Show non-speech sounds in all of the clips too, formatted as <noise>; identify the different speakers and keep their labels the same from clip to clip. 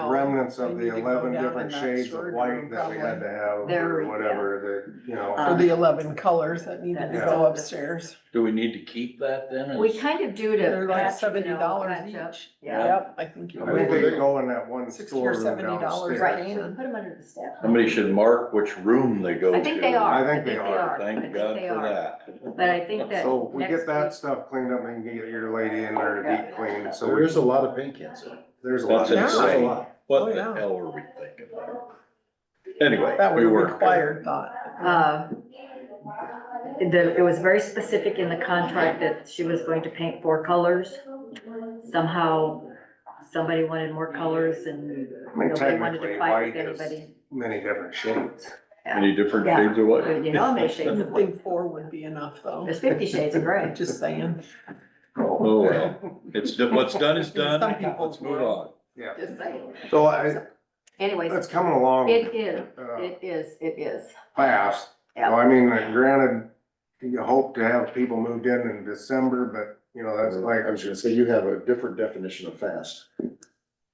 Speaker 1: Oh,
Speaker 2: remnants of
Speaker 3: They Oh, need
Speaker 2: the
Speaker 3: to go
Speaker 2: eleven
Speaker 3: down in
Speaker 2: different
Speaker 3: that
Speaker 2: shades of
Speaker 3: sword
Speaker 2: white that we
Speaker 3: room,
Speaker 2: had to have
Speaker 1: There we-
Speaker 2: or
Speaker 1: yeah.
Speaker 2: whatever, that, you
Speaker 1: uh,
Speaker 3: For
Speaker 2: know.
Speaker 3: the eleven colors that needed to
Speaker 2: Yeah.
Speaker 3: go upstairs.
Speaker 4: Do we need to keep that then?
Speaker 1: We kind of do to.
Speaker 3: They're like
Speaker 1: patch, you
Speaker 3: seventy
Speaker 1: know,
Speaker 3: dollars
Speaker 1: patch up.
Speaker 3: each.
Speaker 1: Yeah.
Speaker 3: Yep, I think you
Speaker 2: I think they
Speaker 3: would.
Speaker 2: go in that one
Speaker 3: 60 or
Speaker 2: storeroom
Speaker 3: $70
Speaker 2: downstairs.
Speaker 1: Right,
Speaker 3: Yeah.
Speaker 1: so we put them under the staff.
Speaker 4: Somebody should mark which room they go to.
Speaker 1: I think they are.
Speaker 2: I think they are.
Speaker 1: I think
Speaker 4: Thank
Speaker 1: they
Speaker 4: God for
Speaker 1: are.
Speaker 4: that.
Speaker 1: But I think that.
Speaker 2: So we
Speaker 1: next
Speaker 2: get that
Speaker 1: week-
Speaker 2: stuff cleaned up and you can get your lady in there to deep clean, so
Speaker 5: There
Speaker 2: we-
Speaker 5: is a lot of paint cans. in it.
Speaker 2: there's a lot.
Speaker 4: That's
Speaker 3: Yeah.
Speaker 5: There's a
Speaker 4: insane.
Speaker 5: lot.
Speaker 4: <laughs> What
Speaker 3: Oh,
Speaker 4: the
Speaker 3: yeah.
Speaker 4: hell were we thinking there? Anyway,
Speaker 3: That was
Speaker 4: we
Speaker 3: a
Speaker 4: work.
Speaker 3: required thought.
Speaker 1: uh, The, it was very specific in the contract that she was going to paint four colors. Somehow, somebody wanted more colors and
Speaker 2: I mean,
Speaker 1: nobody wanted
Speaker 2: technically,
Speaker 1: to fight
Speaker 2: white
Speaker 1: with
Speaker 2: is
Speaker 1: anybody.
Speaker 2: many different shades.
Speaker 4: Many different
Speaker 1: Yeah.
Speaker 4: shades of what?
Speaker 1: You know, how many shades of
Speaker 3: I
Speaker 1: blue.
Speaker 3: think four would be enough, though.
Speaker 1: There's fifty shades of gray.
Speaker 3: Just saying.
Speaker 4: Oh, well, it's, do- what's done is done.
Speaker 3: Some people
Speaker 4: Let's move on.
Speaker 2: Yeah,
Speaker 1: Just saying.
Speaker 2: so I,
Speaker 1: Anyways,
Speaker 2: it's coming along.
Speaker 1: it is,
Speaker 2: uh,
Speaker 1: it is, it is.
Speaker 2: fast.
Speaker 1: Yeah.
Speaker 2: Well, I mean, uh, granted, you hope to have people moved in in December, but, you know, that's like,
Speaker 5: Mm, I was gonna say, you have a different definition of fast.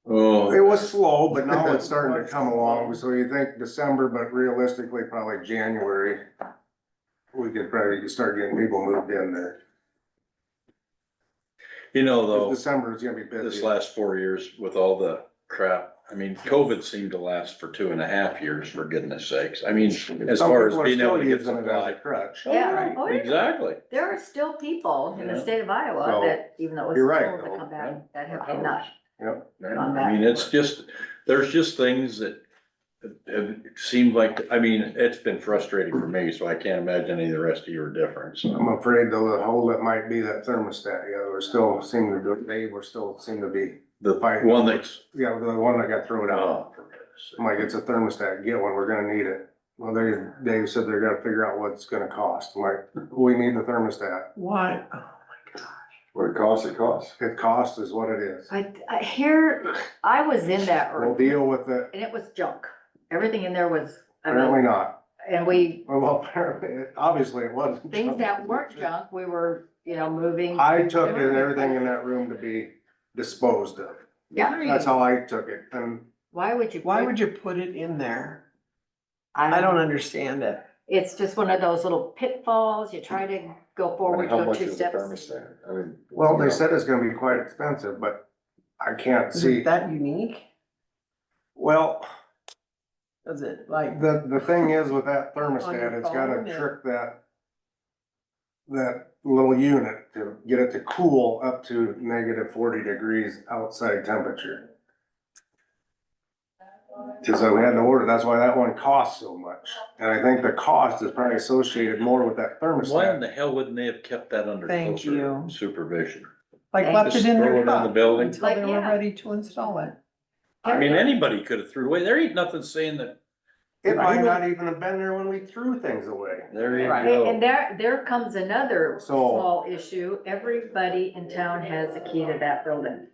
Speaker 4: Oh,
Speaker 2: it was slow, but now it's starting to come along, so you think December, but realistically, probably January. We could probably start getting people moved in there,
Speaker 4: you know,
Speaker 2: 'Cause
Speaker 4: though,
Speaker 2: December is gonna be
Speaker 4: this
Speaker 2: busy.
Speaker 4: last four years with all the crap, I mean, COVID seemed to last for two and a half years, for goodness sakes. I mean, as
Speaker 2: Some
Speaker 4: far as
Speaker 2: people are
Speaker 4: being
Speaker 2: still
Speaker 4: able to get
Speaker 2: using it as a
Speaker 4: supply.
Speaker 2: Crutch.
Speaker 4: Oh,
Speaker 1: Yeah.
Speaker 4: right,
Speaker 1: Oh, yeah.
Speaker 4: Exactly.
Speaker 1: There are still people in the
Speaker 4: Yeah.
Speaker 1: state of Iowa
Speaker 2: Well,
Speaker 1: that, even though it
Speaker 2: you're
Speaker 1: was
Speaker 2: right,
Speaker 1: told
Speaker 2: though.
Speaker 1: to come back, that have
Speaker 4: Hours.
Speaker 1: not.
Speaker 2: Yep.
Speaker 1: Gone
Speaker 4: Oh, I mean,
Speaker 1: back.
Speaker 4: it's just, there's just things that have seemed like, I mean, it's been frustrating for me, so I can't imagine any of the rest of you are different, so.
Speaker 2: I'm afraid though, the hole that might be that thermostat, yeah, we're still seem to, do- they were still seem to be,
Speaker 4: The one that's,
Speaker 2: yeah, the one that got thrown out.
Speaker 4: oh, for goodness sake.
Speaker 2: I'm like, it's a thermostat, get one, we're gonna need it. Well, they, Dave said they're gonna figure out what it's gonna cost, I'm like, we need the thermostat,
Speaker 3: Why?
Speaker 5: What it costs, it costs.
Speaker 2: it costs is what it is.
Speaker 1: I, I hear, I was in that
Speaker 2: We'll
Speaker 1: room
Speaker 2: deal with it,
Speaker 1: and it was junk. Everything in there was, I mean,
Speaker 2: apparently not,
Speaker 1: and we,
Speaker 2: well, <laughs> apparently, obviously it wasn't.
Speaker 1: things that weren't junk, we were, you know, moving.
Speaker 2: I took it, everything in that room to be disposed of,
Speaker 1: Yeah,
Speaker 2: that's how I took it, and
Speaker 1: why would you?
Speaker 3: Why
Speaker 1: put-
Speaker 3: would you put it in there? I
Speaker 1: I
Speaker 3: don't
Speaker 1: don't,
Speaker 3: understand it.
Speaker 1: it's just one of those little pitfalls. You try to go forward,
Speaker 5: And how
Speaker 1: go
Speaker 5: much
Speaker 1: two
Speaker 5: is the
Speaker 1: steps.
Speaker 5: thermostat? I mean.
Speaker 2: Well,
Speaker 5: you
Speaker 2: they
Speaker 5: know,
Speaker 2: said it's gonna be quite expensive, but I can't
Speaker 3: Is it
Speaker 2: see,
Speaker 3: Mm-hmm. that unique?
Speaker 2: well,
Speaker 3: Is it like?
Speaker 2: the, the thing is with that thermostat,
Speaker 3: your
Speaker 2: it's gotta
Speaker 3: phone, yeah.
Speaker 2: trick that. That little unit to get it to cool up to negative forty degrees outside temperature. Cause we had to order, that's why that one costs so much, and I think the cost is probably associated more with that
Speaker 4: Why in
Speaker 2: thermostat.
Speaker 4: the hell wouldn't they have kept that under
Speaker 3: Thank
Speaker 4: closer
Speaker 3: you.
Speaker 4: supervision?
Speaker 3: Like left it
Speaker 4: Just
Speaker 3: in
Speaker 4: throw it
Speaker 3: their
Speaker 4: in the
Speaker 3: cup
Speaker 4: building.
Speaker 3: until they
Speaker 1: Like,
Speaker 3: were
Speaker 1: yeah.
Speaker 3: ready to install it.
Speaker 4: I mean, anybody could have threw away, there ain't nothing saying that,
Speaker 2: It might not even have been there when we threw things away.
Speaker 4: there you
Speaker 3: Right.
Speaker 1: And and
Speaker 4: go.
Speaker 1: there, there comes another
Speaker 2: So-
Speaker 1: small issue. Everybody in town has a key to that building.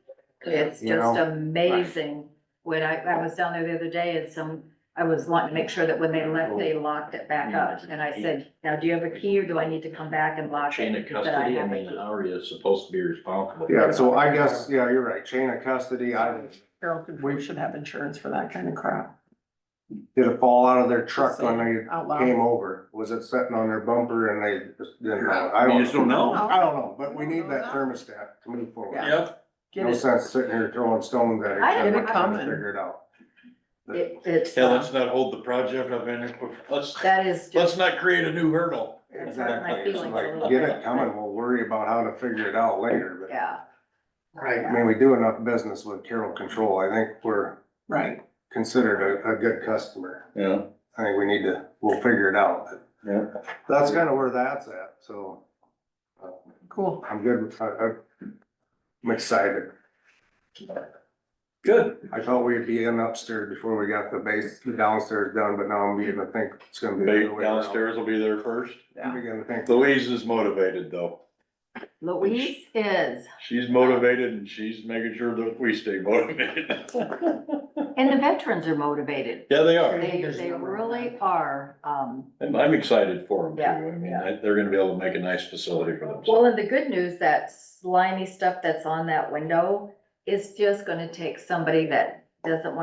Speaker 1: It's
Speaker 2: You
Speaker 1: just
Speaker 2: know?
Speaker 1: amazing. When I, I was down there the other day and some, I was wanting to make sure that when they left, they
Speaker 2: Oh.
Speaker 1: locked it
Speaker 2: Mm.
Speaker 1: back up. And I said, now, do you have a key or do I need to come back and lock it?
Speaker 4: Chain of
Speaker 1: He said,
Speaker 4: custody, I
Speaker 1: have a
Speaker 4: mean, uh,
Speaker 1: key."
Speaker 4: how are you supposed to be responsible?
Speaker 2: Yeah, so I guess, yeah, you're right, chain of custody, I
Speaker 3: Carol could, we should have insurance for that kind of crap.
Speaker 2: did a fall out of their truck when they
Speaker 3: Out loud.
Speaker 2: came over, was it sitting on their bumper and they just didn't know? I
Speaker 4: You just don't know.
Speaker 2: I don't know, but we need that thermostat to move forward.
Speaker 3: Yeah.
Speaker 4: Yep,
Speaker 3: Get
Speaker 2: No
Speaker 3: it.
Speaker 2: sense sitting here throwing stones at each
Speaker 1: I
Speaker 2: other,
Speaker 1: don't-
Speaker 2: trying to
Speaker 3: Coming.
Speaker 2: figure it out.
Speaker 1: It, it's,
Speaker 4: yeah,
Speaker 1: uh,
Speaker 4: let's not hold the project up any, let's,
Speaker 1: that is
Speaker 4: let's
Speaker 1: just,
Speaker 4: not create a new hurdle.
Speaker 2: Exactly,
Speaker 1: my
Speaker 2: it's
Speaker 1: feelings a
Speaker 2: like,
Speaker 1: little
Speaker 2: get
Speaker 1: bit.
Speaker 2: it coming, we'll worry about how to figure it out later, but.
Speaker 1: yeah.
Speaker 2: I mean, we do enough business with Carroll Control, I think we're
Speaker 3: Right.
Speaker 2: considered a, a good customer.
Speaker 4: Yeah.
Speaker 2: I think we need to, we'll figure it out.
Speaker 4: Yeah.
Speaker 2: That's kind of where that's at, so
Speaker 3: Cool.
Speaker 2: I'm good, I, I'm- I'm excited.
Speaker 4: Good.
Speaker 2: I thought we'd be in upstairs before we got the base, the downstairs done, but now I'm beginning to think it's gonna be. the other way around.
Speaker 4: Downstairs will be there first.
Speaker 2: I'm beginning to think,
Speaker 4: Louise is motivated though.
Speaker 1: Louise is.
Speaker 4: She's motivated and she's making sure that we stay motivated.
Speaker 1: <laughs> And the veterans are motivated.
Speaker 4: Yeah, they are.
Speaker 1: They, they really are. Um,
Speaker 4: And I'm excited for them too.
Speaker 1: Yeah,
Speaker 4: I mean,
Speaker 1: yeah.
Speaker 4: I- they're gonna be able to make a nice facility for
Speaker 1: Well,
Speaker 4: themselves.
Speaker 1: and the good news, that slimy stuff that's on that window is just gonna take somebody that doesn't want